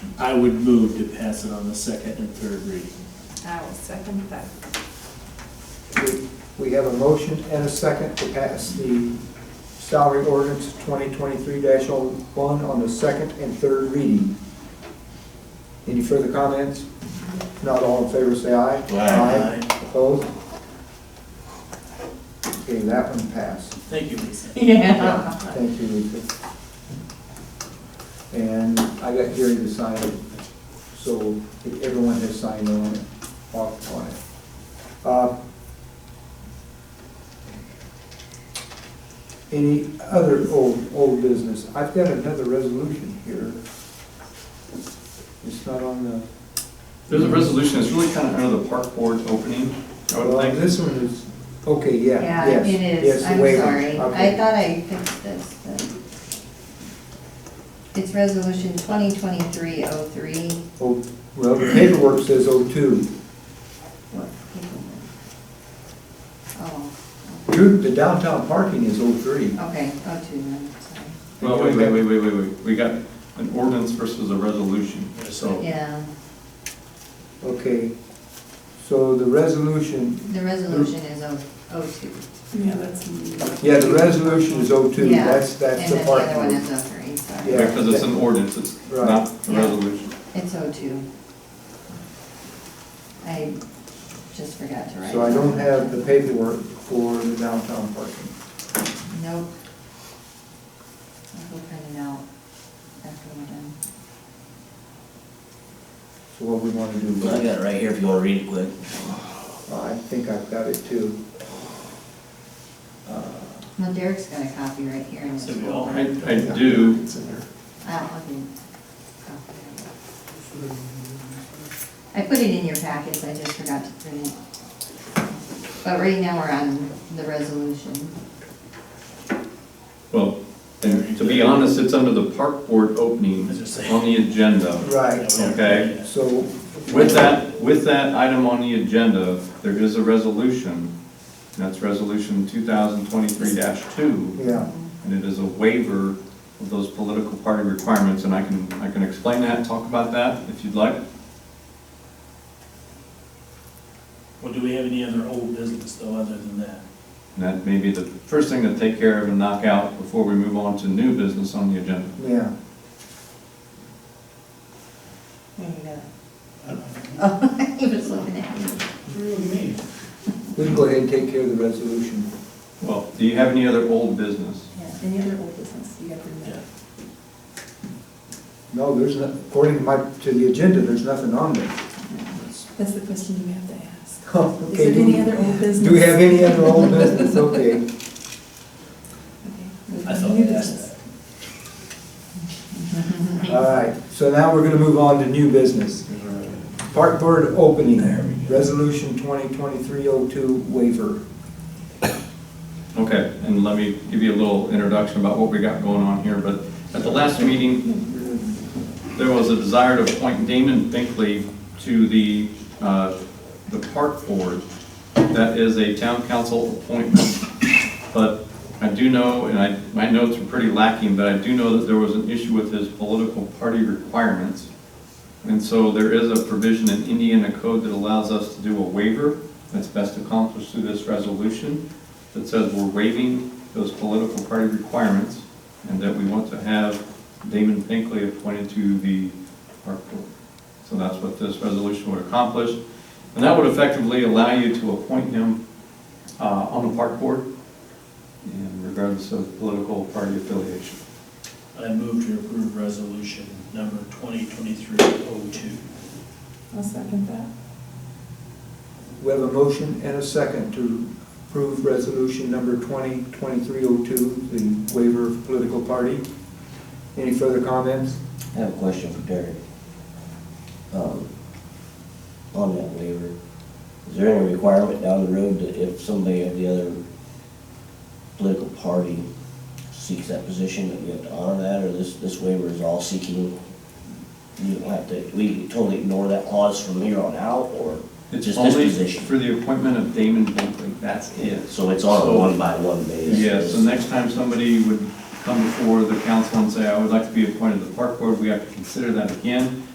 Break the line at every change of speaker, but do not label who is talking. I would move to pass it on the second and third reading.
I will second that.
We- We have a motion and a second to pass the salary ordinance 2023-01 on the second and third reading. Any further comments? Not all in favor, say aye.
Aye.
Opposed? Okay, that one passed.
Thank you, Lisa.
Yeah.
Thank you, Lisa. And I got Gary to sign it, so if everyone has signed on it, off on it. Uh, Any other old, old business? I've got another resolution here. It's not on the,
There's a resolution, it's really kind of under the park board's opening, I would
well,
think.
this one is, okay, yeah,
Yeah,
yes.
it
yes,
is,
the
I'm
waiver,
sorry. I
okay.
thought I fixed this, but. It's resolution twenty twenty-three oh three.
Oh, Well, the paperwork says oh two.
What paper? Oh,
Drew, the downtown parking is oh three.
okay, oh two, then, sorry.
Well, wait, wait, wait, wait, wait, wait, we got an ordinance versus a resolution,
Oh.
so.
Yeah,
Okay, so the resolution,
the resolution is oh, oh two.
Yeah, that's.
yeah, the resolution is oh two,
Yeah,
that's, that's the part.
And then the other one is oh three, sorry.
Yeah.
Because it's an ordinance, it's
Right.
not a
Yeah.
resolution.
It's oh two. I just forgot to write.
So I don't
that.
have the paperwork for the downtown parking.
Nope. I'll go print it out after we're done.
So what we wanna do,
I
I
got it right here if you wanna read it quick.
I think I've got it too. Uh,
Well, Derek's got a copy right here in his
So we all
folder.
I, I do,
I'll I'll give you a copy. I put it in your packets, I just forgot to print it. But right now, we're on the resolution.
well, and to be honest, it's under the park board opening
As I say.
on the agenda.
Right,
Okay.
so,
With that, with that item on the agenda, there is a resolution, and that's resolution two thousand twenty-three two.
yeah,
and it is a waiver of those political party requirements, and I can, I can explain that, talk about that if you'd like.
Well, do we have any other old business though, other than that?
And that may be the first thing to take care of and knock out before we move on to new business on the agenda.
yeah.
There you go. Oh, he was looking at me.
We can go ahead and take care of the resolution.
Well, do you have any other old business?
Yeah, any other old business you got to
Yeah.
remember?
No, there's not, according to my, to the agenda, there's nothing on there.
That's the question you have to ask. Is
Okay,
there
do
any
we,
other old business?
do we have any other old business? Okay.
Okay,
I thought
new
we asked
business.
that.
All right, so now we're gonna move on to new business. Park Board opening, resolution 2023-02 waiver.
Okay, and let me give you a little introduction about what we got going on here, but at the last meeting, there was a desire to appoint Damon Binkley to the, uh, the park board. That is a town council appointment, but I do know, and I, my notes are pretty lacking, but I do know that there was an issue with his political party requirements. And so there is a provision in Indiana code that allows us to do a waiver, that's best accomplished through this resolution, that says we're waiving those political party requirements, and that we want to have Damon Pinkley appointed to the park board. So that's what this resolution would accomplish, and that would effectively allow you to appoint him uh, on the park board, and regardless of political party affiliation.
I move to approve resolution number twenty twenty-three oh two.
I'll second that.
We have a motion and a second to approve resolution number 2023-02, the waiver of political party. Any further comments?
I have a question for Derek. Um, on that waiver, is there any requirement down the road that if somebody of the other political party seeks that position, that we have to honor that, or this, this waiver is all seeking? You don't have to, we can totally ignore that clause from here on out, or
It's
just this
only
position?
For the appointment of Damon Pinkley, that's it.
So it's on a
So-
one-by-one basis?
Yeah, so next time somebody would come before the council and say, I would like to be appointed to the park board, we have to consider that again.